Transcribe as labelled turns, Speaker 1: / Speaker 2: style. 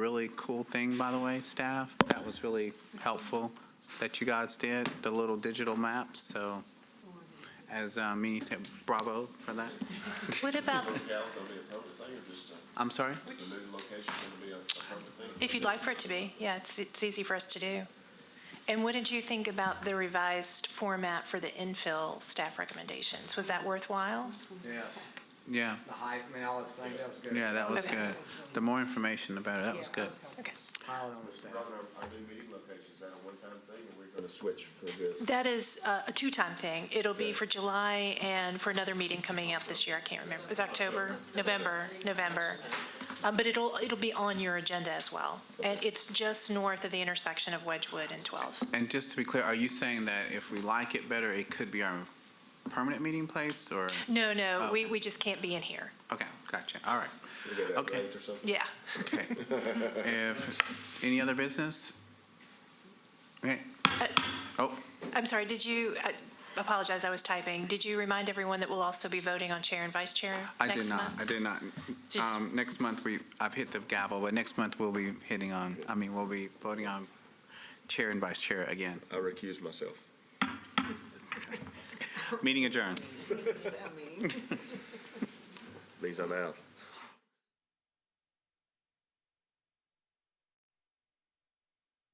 Speaker 1: Really cool thing, by the way, staff. That was really helpful that you guys did, the little digital maps, so as uh, Meany said, bravo for that.
Speaker 2: What about,
Speaker 3: Cal gonna be a public thing, or just, uh,
Speaker 1: I'm sorry?
Speaker 3: is the new location gonna be a a public thing?
Speaker 2: if you'd like for it to be, yeah, it's, it's easy for us to do. And what did you think about the revised format for the infill staff recommendations? Was that worthwhile?
Speaker 4: Yeah,
Speaker 1: Yeah,
Speaker 4: the hype, I mean, all this thing, that was good.
Speaker 1: yeah, that was
Speaker 2: Okay.
Speaker 1: good. The more information, the better. That was good.
Speaker 2: Okay.
Speaker 4: Piling on the staff.
Speaker 3: Robert, our, our new meeting location, is that a one-time thing, or we're gonna switch for this?
Speaker 2: That is uh, a two-time thing. It'll be for July and for another meeting coming up this year. I can't remember. It was October, November, November. Um, But it'll, it'll be on your agenda as well. And it's just north of the intersection of Wedgewood and 12.
Speaker 1: And just to be clear, are you saying that if we like it better, it could be our permanent meeting place, or?
Speaker 2: No, no, we, we just can't be in here.
Speaker 1: Okay, gotcha, all right.
Speaker 3: We get that
Speaker 1: Okay.
Speaker 3: rate or something?
Speaker 2: Yeah.
Speaker 1: Okay. If, any other business? Okay. Oh,
Speaker 2: I'm sorry, did you, I apologize, I was typing. Did you remind everyone that we'll also be voting on chair and vice chair
Speaker 1: I did
Speaker 2: next
Speaker 1: not,
Speaker 2: month?
Speaker 1: I did not.
Speaker 2: Just-
Speaker 1: Um, Next month, we, I've hit the gavel, but next month we'll be hitting on, I mean, we'll be voting on chair and vice chair again.
Speaker 3: I recuse myself.
Speaker 1: Meeting adjourned.
Speaker 3: Means I'm out.